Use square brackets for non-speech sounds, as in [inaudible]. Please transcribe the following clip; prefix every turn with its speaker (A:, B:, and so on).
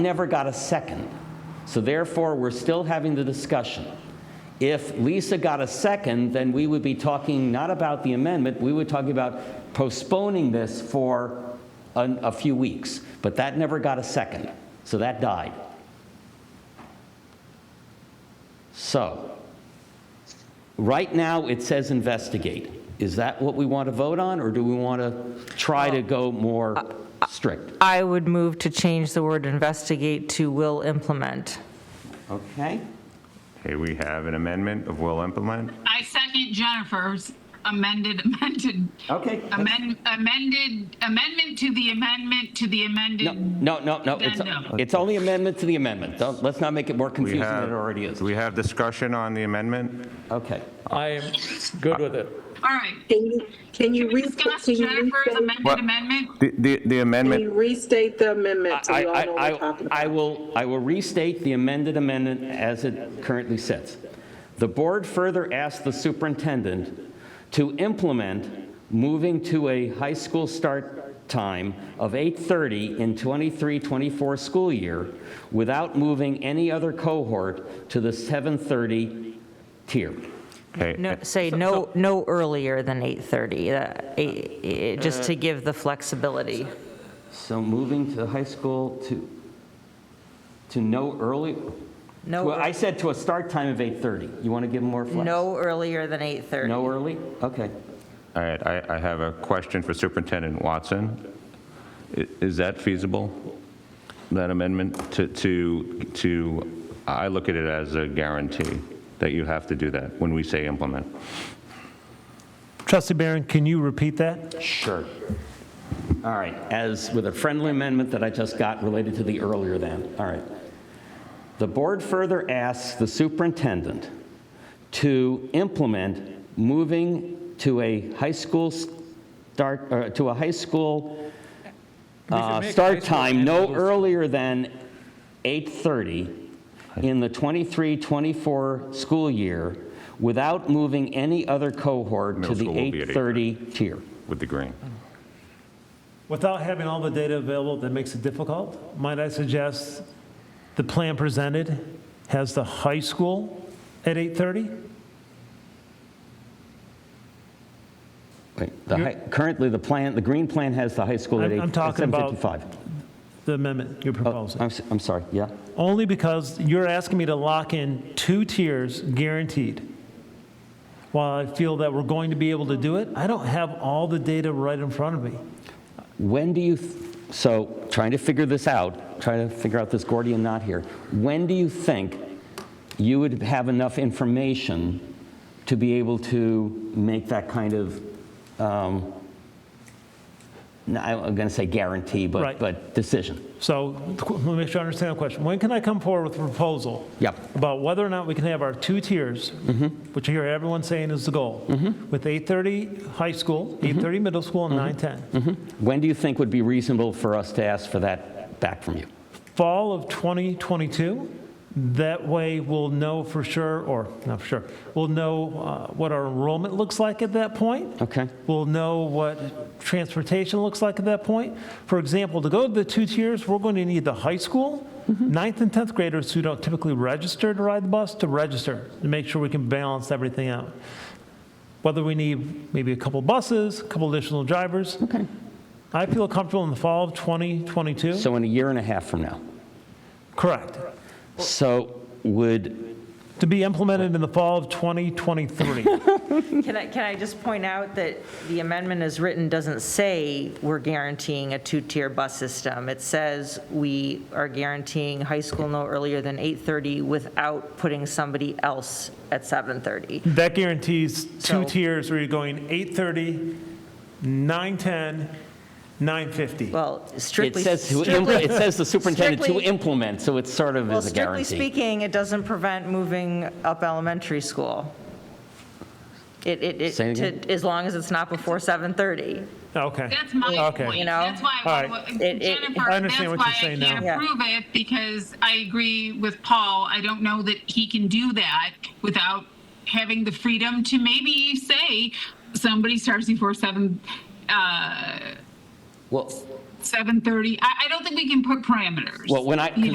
A: never got a second. So therefore, we're still having the discussion. If Lisa got a second, then we would be talking not about the amendment, we would talk about postponing this for an- a few weeks. But that never got a second, so that died. So, right now, it says investigate. Is that what we want to vote on, or do we want to try to go more strict?
B: I would move to change the word investigate to will implement.
A: Okay?
C: Okay, we have an amendment of will implement.
D: I second Jennifer's amended, amended,
A: Okay.
D: amend amended, amendment to the amendment to the
A: No,
D: amended.
A: no, no, no.
D: Then
A: It's,
D: no.
A: it's only amendment to the amendment. Don't, let's not make it more
C: We
A: confusing
C: have-
A: than it already is.
C: Do we have discussion on the amendment?
A: Okay.
E: I'm good with it.
D: All right.
F: Can you, can you
D: Can we
F: restate,
D: discuss
F: can you
D: Jennifer's
F: restate,
D: amended
C: What-
D: amendment?
C: The- The the
F: can you
C: amendment,
F: restate the amendment so
A: I,
F: we all
A: I,
F: know what we're
A: I,
F: talking about?
A: I will, I will restate the amended amendment as it currently sits. The board further asked the superintendent to implement moving to a high school start time of 8:30 in 23-24 school year without moving any other cohort to the 7:30 tier.
C: okay,
B: No, say no, no earlier than 8:30, uh, eight- eh, just to give the flexibility.
A: Uh, So moving to high school to, to no early?
B: No
A: Well, I
B: ear-
A: said to a start time of 8:30. You want to give them more flex?
B: No earlier than 8:30.
A: No early? Okay.
C: all right, I I have a question for Superintendent Watson. I- Is that feasible, that amendment to, to, to? I look at it as a guarantee that you have to do that when we say implement.
G: Trustee Barron, can you repeat that?
A: Sure. All right, as with a friendly amendment that I just got related to the earlier then, all right. The board further asks the superintendent to implement moving to a high school start, or to a high school uh,
E: make high
A: start
E: school
A: time
E: and
A: no
E: middle school.
A: earlier than 8:30 in the 23-24 school year without moving any other cohort to
C: Middle
A: the
C: school will be at
A: 8:30 tier.
C: With the green.
G: Without having all the data available, that makes it difficult. Might I suggest the plan presented has the high school at 8:30?
A: Wait, the hi- Currently, the plan, the green plan has the high school at
G: I'm-
A: 8.
G: I'm talking about
A: 7:55.
G: The amendment you're
A: Oh,
G: proposing.
A: I'm s- I'm sorry, yeah?
G: Only because you're asking me to lock in two tiers guaranteed. While I feel that we're going to be able to do it, I don't have all the data right in front of me.
A: When do you, th- so, trying to figure this out, trying to figure out this Gordian knot here, when do you think you would have enough information to be able to make that kind of, um, no, I'm going to say guarantee, but,
G: Right.
A: but decision?
G: So qu- let me make sure I understand the question. When can I come forward with a proposal?
A: Yep.
G: About whether or not we can have our two tiers, which I hear everyone saying is the goal, with 8:30 high school, 8:30 middle school, and 9:10.
A: When do you think would be reasonable for us to ask for that back from you?
G: Fall of 2022, that way we'll know for sure, or not for sure, we'll know uh, what our enrollment looks like at that point.
A: Okay.
G: We'll know what transportation looks like at that point. For example, to go to the two tiers, we're going to need the high school,
A: Mm-hmm.
G: ninth and 10th graders who don't typically register to ride the bus to register to make sure we can balance everything out. Whether we need maybe a couple buses, a couple additional drivers. Okay. I feel comfortable in the fall of 2022.
A: So in a year and a half from now?
G: Correct.
A: So would,
G: To be implemented in the fall
B: [laughs]
G: of 2023.
B: Can I, can I just point out that the amendment as written doesn't say we're guaranteeing a two-tier bus system. It says we are guaranteeing high school no earlier than 8:30 without putting somebody else at 7:30.
G: That guarantees two
B: So-
G: tiers where you're going 8:30, 9:10, 9:50.
B: Well,
A: it
B: strictly.
A: says, to im-
B: strictly-
A: it says the superintendent to
B: strictly-
A: implement, so it sort of
B: Well,
A: is a
B: strictly
A: guarantee.
B: speaking, it doesn't prevent moving up elementary school. It, it, it-
A: Say it
B: to-
A: again?
B: as long as it's not before 7:30.
G: Okay.
D: That's my
G: Okay.
D: point.
B: know?
D: That's why,
G: All
D: I
G: right.
D: want-
B: It- it-
D: Jennifer,
G: I understand
D: that's
G: what
D: why
G: you're
D: I
G: saying now.
D: can't
B: Yeah.
D: approve it because I agree with Paul. I don't know that he can do that without having the freedom to maybe say somebody starts before seven, uh,
A: Well,
D: 7:30. I, I don't think we can put parameters.
A: Well, when I-
D: you